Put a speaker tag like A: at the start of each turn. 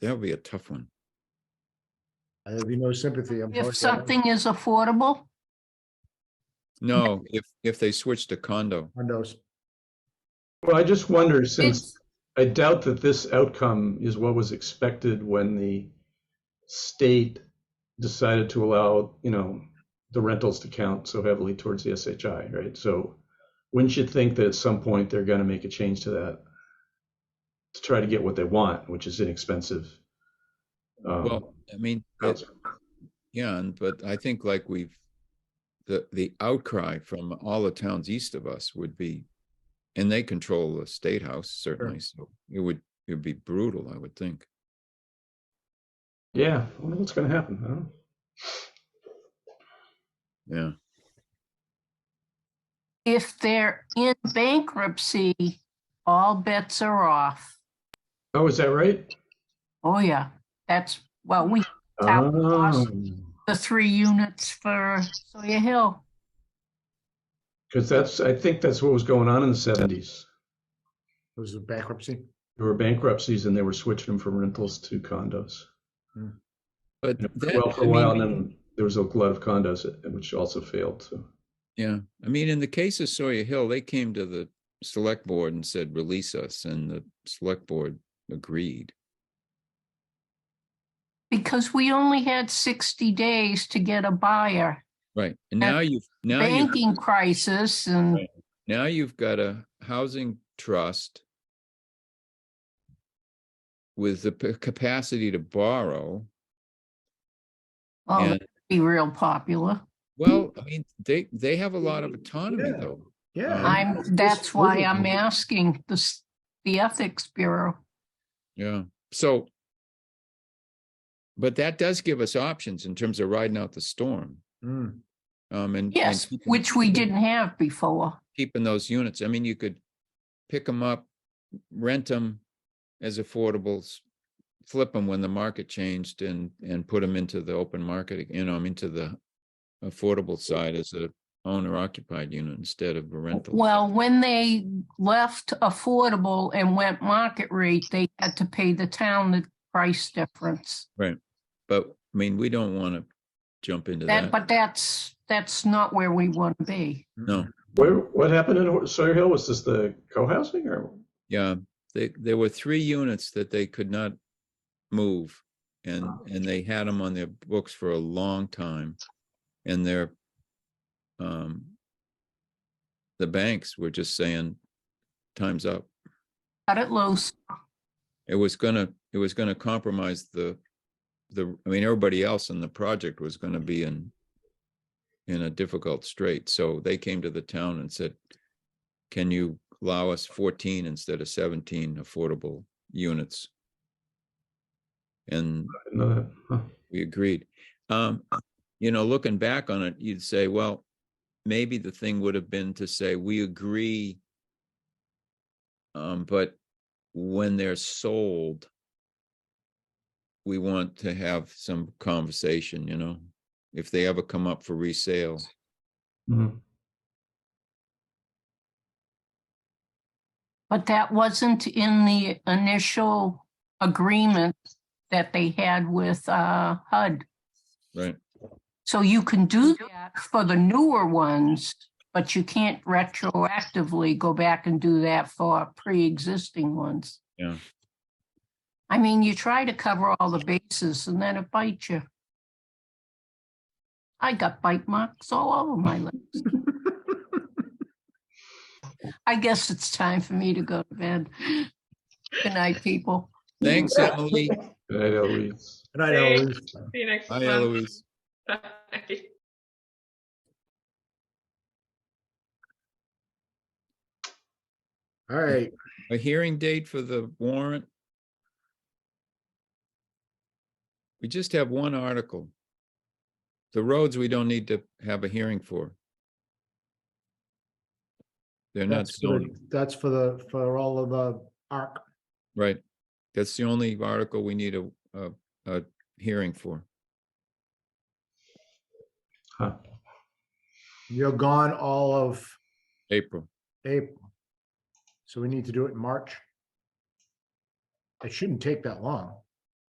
A: That would be a tough one.
B: I have no sympathy. I'm
C: If
B: sorry.
C: something is affordable,
A: No, if, if they switch to condo,
B: Condos.
D: Well, I just wonder,
C: it's,
D: since I doubt that this outcome is what was expected when the state decided to allow, you know, the rentals to count so heavily towards the SHI, right? So wouldn't you think that at some point they're going to make a change to that to try to get what they want, which is inexpensive? um,
A: well, I mean, it-
D: housing?
A: yeah, and- but I think like we've, the, the outcry from all the towns east of us would be, and they control the state house certainly, so it would, it would be brutal, I would think.
D: Yeah, I wonder what's going to happen. I don't know.
A: Yeah,
C: if they're in bankruptcy, all bets are off.
D: Oh, is that right?
C: Oh, yeah, that's, well, we, Town cost.
D: Um,
C: the three units for Sawyer Hill.
D: Because that's, I think that's what was going on in the 70s.
B: It was a bankruptcy.
D: There were bankruptcies and they were switching them from rentals to condos.
A: but.
D: And it
A: that-
D: went Well, for
A: I
D: a while, and
A: mean,
D: then there was a glut of condos, uh, which also failed, so.
A: Yeah, I mean, in the case of Sawyer Hill, they came to the select board and said, release us, and the select board agreed.
C: Because we only had sixty days to get a buyer.
A: Right, and
C: Uh,
A: now you've, now you've,
C: Banking crisis and,
A: Right. now you've got a housing trust with the p- capacity to borrow,
C: Hmm. well,
A: and,
C: that'd be real popular.
A: well, I mean, they, they have a lot of autonomy,
B: Yeah.
A: though.
B: Yeah.
C: I'm,
B: It's
C: that's why
B: really-
C: I'm asking the, s- the Ethics Bureau.
A: Yeah, so. But that does give us options in terms of riding out the storm,
B: Mm.
A: um, and. and
C: Yes,
A: keeping-
C: which we didn't have before.
A: keeping those units. I mean, you could pick them up, rent them as affordables, flip them when the market changed and, and put them into the open market, you know, I'm into the affordable side as a owner occupied unit instead of a rental.
C: Well, when they left affordable and went market rate, they had to pay the town the price difference.
A: But, I mean, we don't want to jump into
C: That,
A: that.
C: but that's, that's not where we want to be.
A: No,
D: Where, what happened in Sawyer Hill? Was this the co-housing or?
A: yeah, they, there were three units that they could not move. And, and they had them on their books for a long time. And their, um, the banks were just saying, time's up.
C: Cut it loose.
A: It was gonna, it was gonna compromise the, the, I mean, everybody else in the project was gonna be in, in a difficult strait. So they came to the town and said, can you allow us fourteen instead of seventeen affordable units? And
D: I didn't know that. Huh.
A: we agreed. Um, you know, looking back on it, you'd say, well, maybe the thing would have been to say, we agree. Um, but when they're sold, we want to have some conversation, you know, if they ever come up for resale.
D: Mhm.
C: But that wasn't in the initial agreement that they had with uh, HUD.
A: Right.
C: So you can do that for the newer ones, but you can't retroactively go back and do that for pre-existing ones.
A: Yeah.
C: I mean, you try to cover all the bases and then it bites you. I got bite marks all over my legs. I guess it's time for me to go to bed. Good night, people.
A: Thanks, Emily.
D: Good night, Eloise.
B: Good night, Eloise.
E: See you next
A: Hi,
E: month.
A: Eloise.
E: Bye.
B: All right.
A: A hearing date for the warrant? We just have one article. The roads, we don't need to have a hearing for. They're not
B: That's for,
A: zoning,
B: the- that's for the, for all of the arc.
A: right? That's the only article we need a, a, a hearing for.
D: Huh.
B: You're gone all of
A: April,
B: April. So we need to do it in March. It shouldn't take that long.